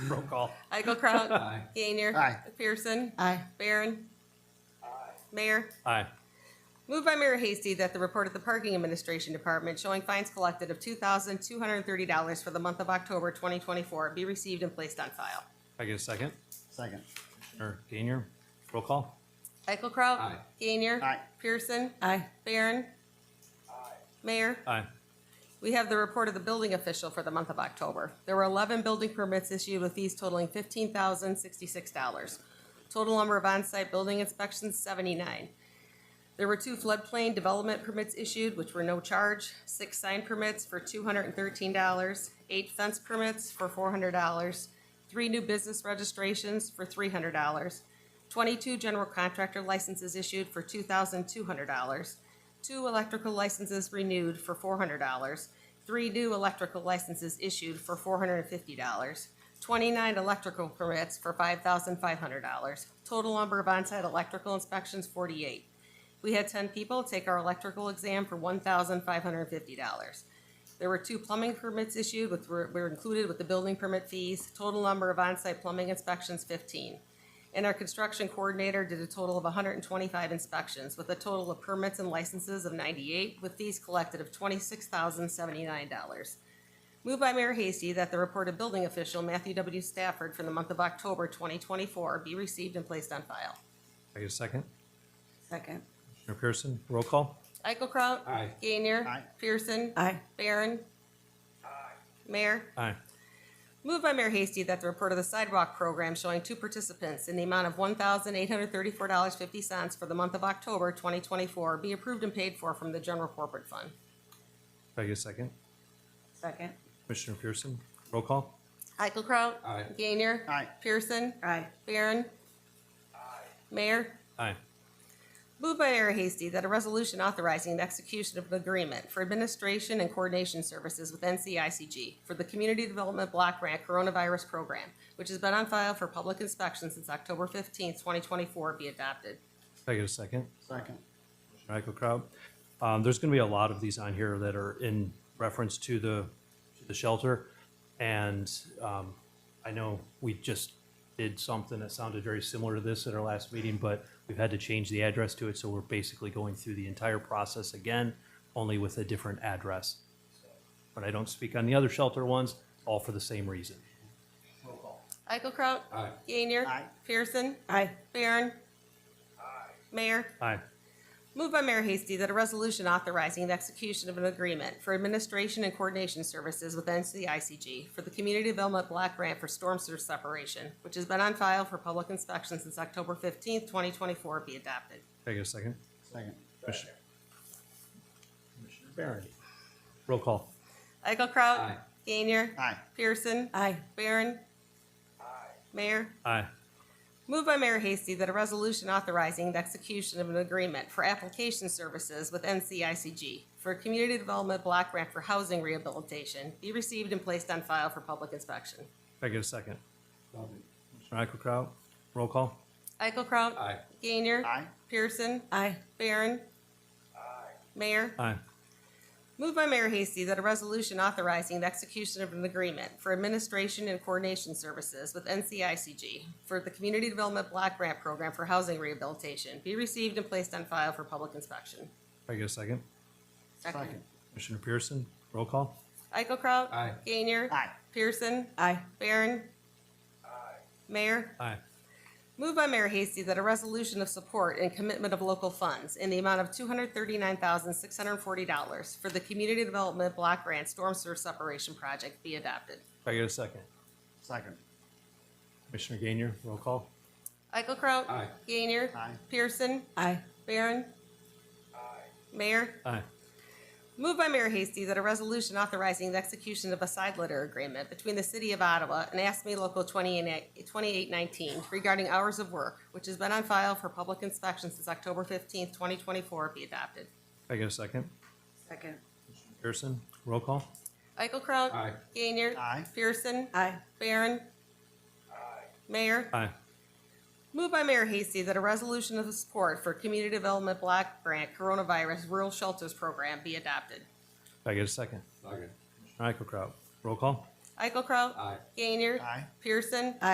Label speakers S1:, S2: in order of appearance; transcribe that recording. S1: Roll call.
S2: Eichelkraut.
S1: Aye.
S2: Gainer.
S3: Aye.
S2: McPherson.
S3: Aye.
S2: Barron. Mayor.
S1: Aye.
S2: Moved by Mayor Hasty that the report of the Parking Administration Department showing fines collected of two thousand two hundred and thirty dollars for the month of October twenty twenty-four be received and placed on file.
S1: If I get a second,
S3: Second.
S1: or Gainer, roll call.
S2: Eichelkraut.
S1: Aye.
S2: Gainer.
S3: Aye.
S2: Pearson.
S3: Aye.
S2: Barron. Mayor.
S1: Aye.
S2: We have the report of the building official for the month of October. There were eleven building permits issued with fees totaling fifteen thousand sixty-six dollars. Total number of on-site building inspections, seventy-nine. There were two floodplain development permits issued, which were no charge, six sign permits for two hundred and thirteen dollars, eight fence permits for four hundred dollars, three new business registrations for three hundred dollars, twenty-two general contractor licenses issued for two thousand two hundred dollars, two electrical licenses renewed for four hundred dollars, three new electrical licenses issued for four hundred and fifty dollars, twenty-nine electrical permits for five thousand five hundred dollars, total number of onsite electrical inspections, forty-eight. We had ten people take our electrical exam for one thousand five hundred and fifty dollars. There were two plumbing permits issued, which were, were included with the building permit fees, total number of onsite plumbing inspections, fifteen. And our construction coordinator did a total of hundred and twenty-five inspections, with a total of permits and licenses of ninety-eight, with fees collected of twenty-six thousand seventy-nine dollars. Moved by Mayor Hasty that the report of building official Matthew W. Stafford for the month of October twenty twenty-four be received and placed on file.
S1: If I get a second,
S3: Second.
S1: Commissioner Pearson, roll call.
S2: Eichelkraut.
S1: Aye.
S2: Gainer.
S3: Aye.
S2: Pearson.
S3: Aye.
S2: Barron. Mayor.
S1: Aye.
S2: Moved by Mayor Hasty that the report of the sidewalk program showing two participants in the amount of one thousand eight hundred thirty-four dollars fifty cents for the month of October twenty twenty-four be approved and paid for from the general corporate fund.
S1: If I get a second,
S3: Second.
S1: Commissioner Pearson, roll call.
S2: Eichelkraut.
S1: Aye.
S2: Gainer.
S3: Aye.
S2: Pearson.
S3: Aye.
S2: Barron. Mayor.
S1: Aye.
S2: Moved by Mayor Hasty that a resolution authorizing the execution of an agreement for administration and coordination services with NCICG for the Community Development Block Grant Coronavirus Program, which has been on file for public inspection since October fifteenth, twenty twenty-four, be adopted.
S1: If I get a second,
S3: Second.
S1: Michael Kraut. Um, there's gonna be a lot of these on here that are in reference to the, to the shelter. And, um, I know we just did something that sounded very similar to this at our last meeting, but we've had to change the address to it, so we're basically going through the entire process again, only with a different address. But I don't speak on the other shelter ones, all for the same reason.
S2: Eichelkraut.
S1: Aye.
S2: Gainer.
S3: Aye.
S2: Pearson.
S3: Aye.
S2: Barron. Mayor.
S1: Aye.
S2: Moved by Mayor Hasty that a resolution authorizing the execution of an agreement for administration and coordination services with NCICG for the Community Development Block Grant for Storm Sewer Separation, which has been on file for public inspection since October fifteenth, twenty twenty-four, be adopted.
S1: If I get a second,
S3: Second.
S1: Commissioner. Commissioner Barron. Roll call.
S2: Eichelkraut.
S1: Aye.
S2: Gainer.
S3: Aye.
S2: Pearson.
S3: Aye.
S2: Barron. Mayor.
S1: Aye.
S2: Moved by Mayor Hasty that a resolution authorizing the execution of an agreement for application services with NCICG for a community development block grant for housing rehabilitation be received and placed on file for public inspection.
S1: If I get a second. Commissioner Eichelkraut, roll call.
S2: Eichelkraut.
S1: Aye.
S2: Gainer.
S3: Aye.
S2: Pearson.
S3: Aye.
S2: Barron. Mayor.
S1: Aye.
S2: Moved by Mayor Hasty that a resolution authorizing the execution of an agreement for administration and coordination services with NCICG for the Community Development Block Grant Program for Housing Rehabilitation be received and placed on file for public inspection.
S1: If I get a second.
S3: Second.
S1: Commissioner Pearson, roll call.
S2: Eichelkraut.
S1: Aye.
S2: Gainer.
S3: Aye.
S2: Pearson.
S3: Aye.
S2: Barron. Mayor.
S1: Aye.
S2: Moved by Mayor Hasty that a resolution of support and commitment of local funds in the amount of two hundred thirty-nine thousand, six hundred and forty dollars for the Community Development Block Grant Storm Sewer Separation Project be adopted.
S1: If I get a second.
S3: Second.
S1: Commissioner Gainier, roll call.
S2: Eichelkraut.
S1: Aye.
S2: Gainer.
S3: Aye.
S2: Pearson.
S3: Aye.
S2: Barron. Mayor.
S1: Aye.
S2: Moved by Mayor Hasty that a resolution authorizing the execution of a side letter agreement between the City of Ottawa and ASME Local 28 2819 regarding hours of work, which has been on file for public inspection since October 15, 2024, be adopted.
S1: If I get a second.
S3: Second.
S1: Pearson, roll call.
S2: Eichelkraut.
S1: Aye.
S2: Gainer.
S3: Aye.
S2: Pearson.
S3: Aye.
S2: Barron. Mayor.
S1: Aye.
S2: Moved by Mayor Hasty that a resolution of support for Community Development Block Grant Coronavirus Rural Shelters Program be adopted.
S1: If I get a second. Second. Commissioner Eichelkraut, roll call.
S2: Eichelkraut.
S4: Aye.
S2: Gainer.
S5: Aye.
S2: Pearson.